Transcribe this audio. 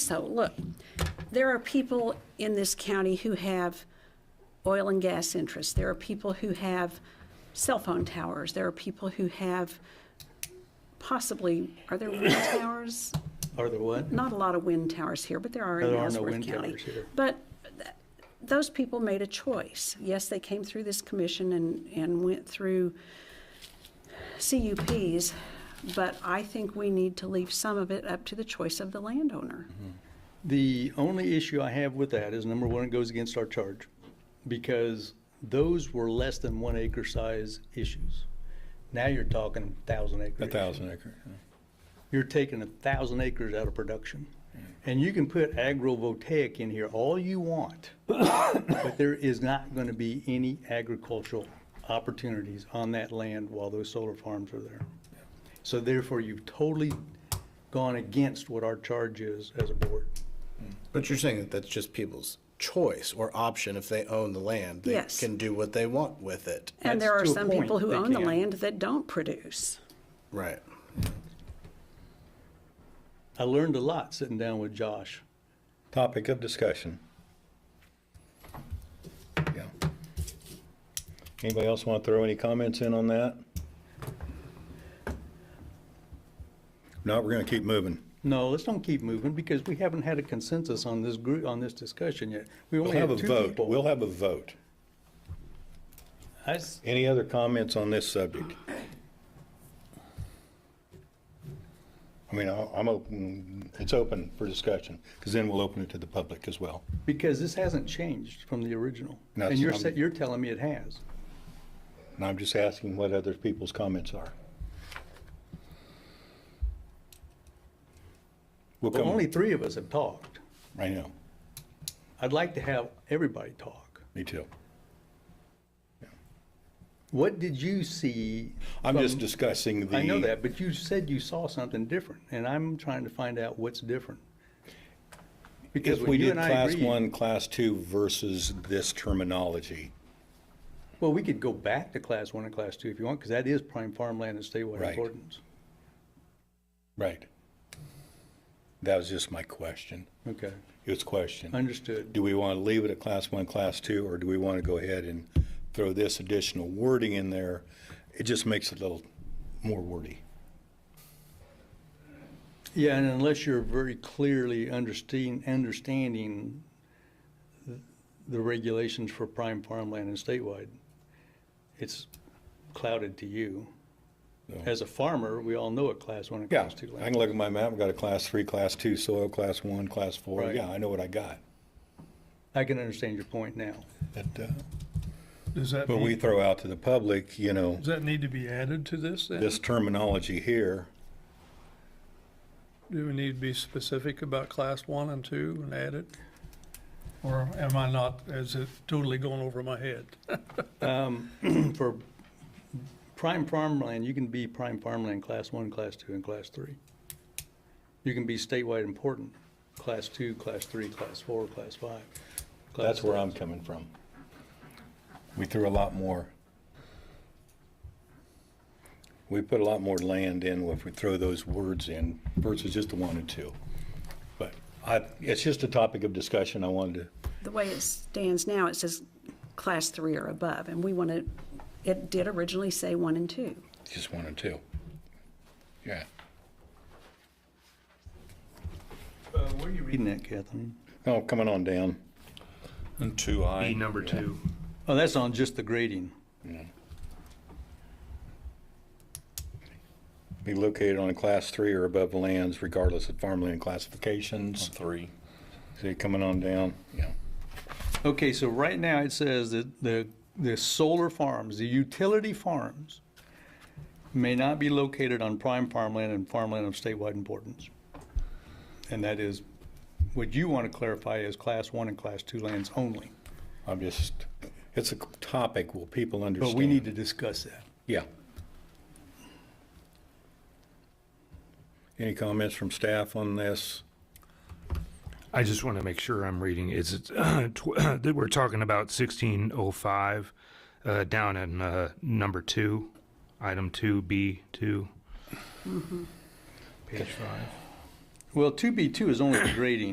So, look, there are people in this county who have oil and gas interests. There are people who have cell phone towers. There are people who have possibly, are there wind towers? Are there what? Not a lot of wind towers here, but there are in There are no Ellsworth wind County. towers here. But th- those people made a choice. Yes, they came through this commission and, and went through CUPs, but I think we need to leave some of it up to the choice of the landowner. The only issue I have with that is number one, it goes against our charge because those were less than one acre size issues. Now you're talking thousand acre. A thousand acre. yeah. You're taking a thousand acres out of production. And you can put agrovoltaic in here all you want, but there is not going to be any agricultural opportunities on that land while those solar farms are there. So therefore, you've totally gone against what our charge is as a board. But you're saying that that's just people's choice or option if they own the land. They Yes. can do what they want with it. And there are That's to a some people point, who they own the can. land that don't produce. Right. I learned a lot sitting down with Josh. Topic of discussion. Yeah. Anybody else want to throw any comments in on that? No, we're going to keep moving. No, let's don't keep moving because we haven't had a consensus on this group, on this discussion yet. We We'll only have a have two vote. We'll people. have a vote. I s- Any other comments on this subject? I mean, I'll- I'm open, it's open for discussion, because then we'll open it to the public as well. Because this hasn't changed from the original. No, And it's you're, not. sa- you're telling me it has. And I'm just asking what other people's comments are. We'll Well, come, only three of us have talked. I know, I'd like to have everybody talk. me too. What did you see? I'm just from- discussing the. I know that, but you said you saw something different, and I'm trying to find out what's different. Because If we when you did and I class agreed- one, class two versus this terminology, Well, we could go back to class one and class two if you want, because that is prime farmland and statewide Right. importance. right? That was just my question. Okay, It was a question. understood. Do we want to leave it at class one, class two, or do we want to go ahead and throw this additional wording in there? It just makes it a little more wordy. Yeah, and unless you're very clearly understanding, understanding th- the regulations for prime farmland and statewide, it's clouded to you. No. As a farmer, we all know what class one and Yeah, class two I can land. look at my map, I've got a class three, class two soil, class one, class four, Right. yeah, I know what I got. I can understand your point now. But, uh, Does that, But we need- throw out to the public, you know, does that need to be added to this then? this terminology here, Do we need to be specific about class one and two and add it? Or am I not, is it totally going over my head? For prime farmland, you can be prime farmland, class one, class two, and class three. You can be statewide important, class two, class three, class four, class five. class that's where six. I'm coming from. We threw a lot more. We put a lot more land in if we throw those words in versus just the one and two. But I, it's just a topic of discussion I wanted to, The way it stands now, it says class three or above, and we want to, it did originally say one and two. just one and two. Yeah. Where are you reading that, Catherine? Oh, coming on down. And two I. B number two. Oh, that's on just the grading. Be located on a class three or above lands regardless of farmland classifications. Three. So you're coming on down, yeah. Okay, so right now it says that the, the solar farms, the utility farms may not be located on prime farmland and farmland of statewide importance. And that is, what you want to clarify is class one and class two lands only. I'm just, it's a topic, will people understand? But we need to discuss that. Yeah. Any comments from staff on this? I just want to make sure I'm reading. Is it tw- that we're talking about sixteen oh five uh, down in uh, number two, item two B two. Page five. Well, two B two is only the grading.